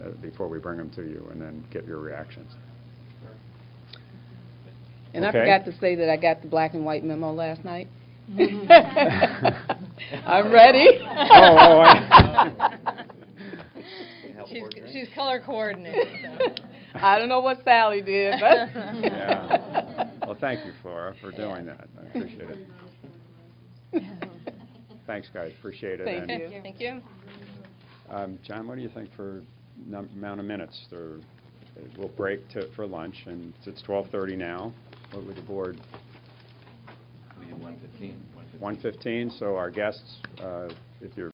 uh, before we bring them to you and then get your reactions. And I Okay. forgot to say that I got the black and white memo last night. I'm ready. Oh, oh, I- She's, she's color coordinated, so. I don't know what Sally did, but. Yeah. Well, thank you, Flora, for doing that. I appreciate it. Thanks, guys, appreciate it. Thank And, you. Thank you. um, John, what do you think for num- amount of minutes? There- We'll break to- for lunch, and it's 12:30 now. What would the board, We do 115. 1:15? So our guests, uh, if you're